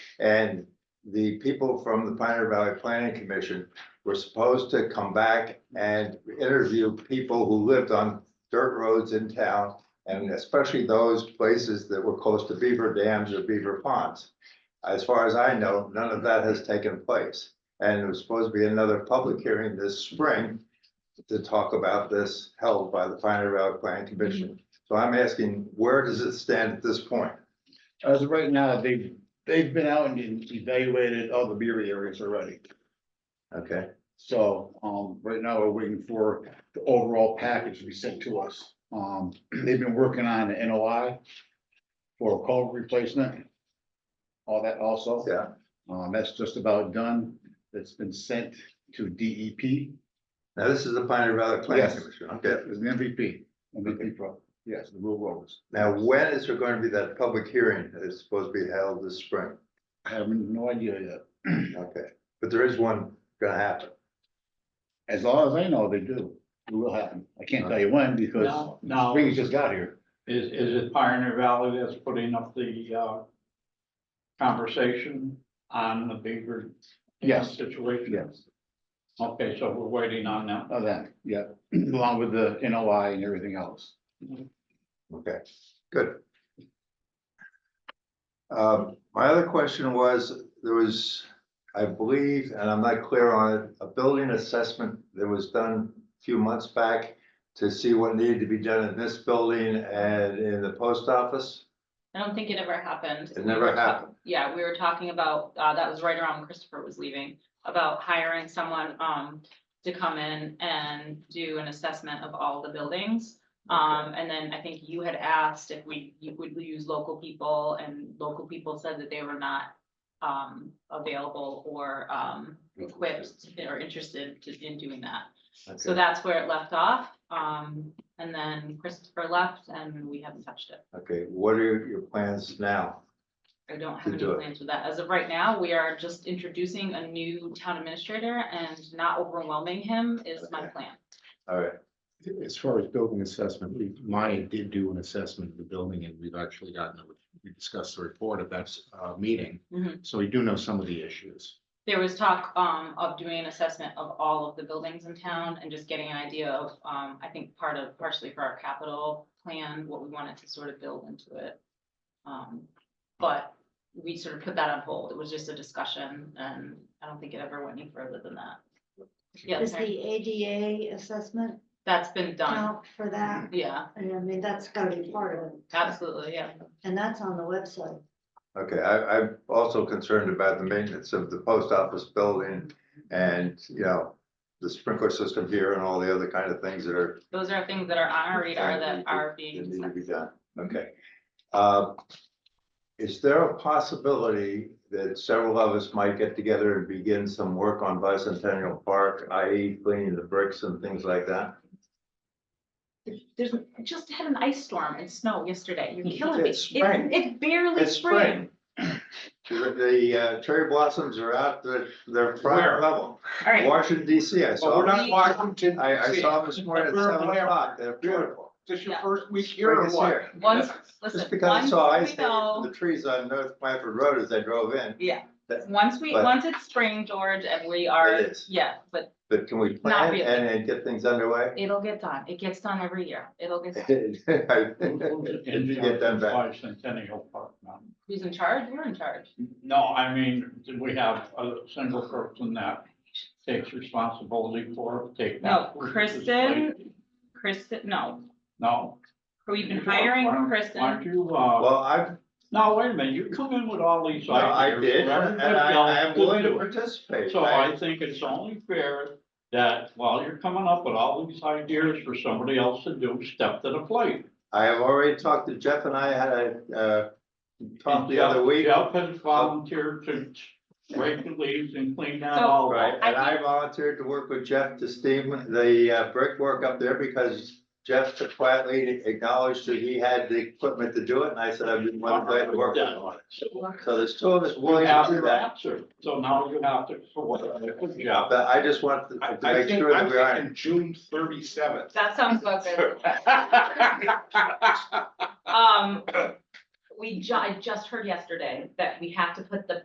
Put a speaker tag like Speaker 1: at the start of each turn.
Speaker 1: And the people from the Pioneer Valley Planning Commission were supposed to come back and interview people who lived on dirt roads in town. And especially those places that were close to beaver dams or beaver ponds. As far as I know, none of that has taken place. And it was supposed to be another public hearing this spring to talk about this held by the Pioneer Valley Planning Commission. So I'm asking, where does it stand at this point?
Speaker 2: As of right now, they've, they've been out and e-, evaluated all the beer areas already.
Speaker 1: Okay,
Speaker 2: So, um, right now, we're waiting for the overall package to be sent to us. Um, they've been working on the NOI for culvert replacement. All that also.
Speaker 1: yeah,
Speaker 2: Um, that's just about done. That's been sent to E DEP.
Speaker 1: now this is the Pioneer Valley Planning
Speaker 2: Yes.
Speaker 1: Commission, okay.
Speaker 2: It's an MVP, MVP pro, yes, the rural roads.
Speaker 1: Now, when is there going to be that public hearing that is supposed to be held this spring?
Speaker 2: I have no idea yet.
Speaker 1: Okay, but there is one gonna happen.
Speaker 2: As long as I know, they do. It will happen. I can't tell you when because
Speaker 3: No, no.
Speaker 2: Springs just got here.
Speaker 3: Is, is it Pioneer Valley that's putting up the, uh, conversation on the Beaver? Dam
Speaker 2: Yes.
Speaker 3: Situation?
Speaker 2: Yes.
Speaker 3: Okay, so we're waiting on that.
Speaker 2: Of Oh, that, yeah, along with the NOI and everything else.
Speaker 1: Okay, good. Um, my other question was, there was, I believe, and I'm not clear on it, a building assessment that was done a few months back to see what needed to be done in this building and in the post office.
Speaker 4: I don't think it ever happened.
Speaker 1: It
Speaker 4: We
Speaker 1: never
Speaker 4: were ta-
Speaker 1: happened.
Speaker 4: Yeah, we were talking about, uh, that was right around when Christopher was leaving, about hiring someone, um, to come in and do an assessment of all the buildings. Um, and then I think you had asked if we, you would use local people and local people said that they were not, um, available or, um, equipped or interested to- in doing that. So
Speaker 1: Okay,
Speaker 4: that's where it left off. Um, and then Christopher left and we haven't touched it.
Speaker 1: Okay, what are your plans now?
Speaker 4: I don't
Speaker 1: to
Speaker 4: have any
Speaker 1: do it.
Speaker 4: plans with that. As of right now, we are just introducing a new town administrator and not overwhelming him is my
Speaker 1: Okay.
Speaker 4: plan.
Speaker 1: All right,
Speaker 5: As far as building assessment, we, Maya did do an assessment of the building and we've actually gotten, a- we discussed the report at that uh, meeting.
Speaker 4: Mhm.
Speaker 5: So we do know some of the issues.
Speaker 4: There was talk um of doing an assessment of all of the buildings in town and just getting an idea of, um, I think part of, partially for our capital plan, what we wanted to sort of build into it. Um, but we sort of put that on hold. It was just a discussion and I don't think it ever went any further than that. Yeah,
Speaker 6: Is the ADA assessment
Speaker 4: that's been done.
Speaker 6: out for that?
Speaker 4: Yeah,
Speaker 6: And I mean, that's gotta be part of it.
Speaker 4: absolutely, yeah.
Speaker 6: And that's on the website.
Speaker 1: okay, I, I'm also concerned about the maintenance of the post office building and, you know, the sprinkler system here and all the other kind of things that are
Speaker 4: Those are things that are on our radar that are
Speaker 1: It
Speaker 4: being.
Speaker 1: need to
Speaker 4: discussed.
Speaker 1: be done, okay. Uh, Is there a possibility that several of us might get together and begin some work on bicentennial park, i.e. cleaning the bricks and things like that?
Speaker 4: There's, I just had an ice storm and snow yesterday. You're killing me.
Speaker 1: It's
Speaker 4: It's,
Speaker 1: spring.
Speaker 4: it's barely
Speaker 1: It's
Speaker 4: spring.
Speaker 1: spring. The- The uh, cherry blossoms are out, they're, they're
Speaker 3: Where?
Speaker 1: prime level.
Speaker 4: All right,
Speaker 1: Washington DC, I
Speaker 3: Well, we're
Speaker 1: saw,
Speaker 3: not Washington.
Speaker 1: I, I saw them this morning at
Speaker 3: We're
Speaker 1: seven
Speaker 3: aware.
Speaker 1: o'clock, they're beautiful.
Speaker 3: This your
Speaker 4: Yeah.
Speaker 3: first week here
Speaker 1: Spring
Speaker 3: or
Speaker 1: is
Speaker 3: what?
Speaker 1: here.
Speaker 4: once, listen,
Speaker 1: Just because I
Speaker 4: once
Speaker 1: saw ice
Speaker 4: we
Speaker 1: from
Speaker 4: know,
Speaker 1: the trees on North Blanford Road as I drove in,
Speaker 4: yeah,
Speaker 1: that-
Speaker 4: once we,
Speaker 1: but-
Speaker 4: once it's spring, George, and we are,
Speaker 1: is.
Speaker 4: yeah, but
Speaker 1: but can we plan
Speaker 4: really.
Speaker 1: and and get things underway?
Speaker 4: it'll get done. It gets done every year. It'll get,
Speaker 1: I
Speaker 4: done.
Speaker 1: did. I did. Did you get them back?
Speaker 3: Bicentennial Park now.
Speaker 4: who's in charge? You're in charge.
Speaker 3: No, I mean, do we have a single person that takes responsibility for, it? take
Speaker 4: No,
Speaker 3: that?
Speaker 4: Kristen, Kristen, no,
Speaker 3: No.
Speaker 4: we've been
Speaker 3: Why don't-
Speaker 4: hiring
Speaker 3: Why don't
Speaker 4: Kristen.
Speaker 3: you, uh,
Speaker 1: Well, I,
Speaker 3: no, wait a minute, you come in with all these
Speaker 1: no, I
Speaker 3: ideas.
Speaker 1: did,
Speaker 3: for
Speaker 1: and
Speaker 3: everybody
Speaker 1: I, I am
Speaker 3: else
Speaker 1: willing to
Speaker 3: do it.
Speaker 1: participate.
Speaker 3: So
Speaker 1: I-
Speaker 3: I think it's only fair that while you're coming up with all these ideas for somebody else to do, step to the plate.
Speaker 1: I have already talked to Jeff and I had a, uh, talk the other week,
Speaker 3: Jeff has volunteered to rake the leaves and clean that
Speaker 4: So-
Speaker 3: all
Speaker 1: right?
Speaker 3: up.
Speaker 1: And I volunteered to work with Jeff to steam the uh, brickwork up there because Jeff quietly acknowledged that he had the equipment to do it, and I said, I've been one glad to work with him on it.
Speaker 3: So
Speaker 1: So there's two of us
Speaker 3: You
Speaker 1: willing to
Speaker 3: have
Speaker 1: do
Speaker 3: your
Speaker 1: that,
Speaker 3: answer, so now you have to, for what, Jeff.
Speaker 1: but I just want to
Speaker 7: I,
Speaker 1: to
Speaker 7: I
Speaker 1: make
Speaker 7: think,
Speaker 1: sure
Speaker 7: I'm
Speaker 1: that we are.
Speaker 7: thinking June thirty-seventh.
Speaker 4: That sounds about good. Um, we ju- I just heard yesterday that we have to put the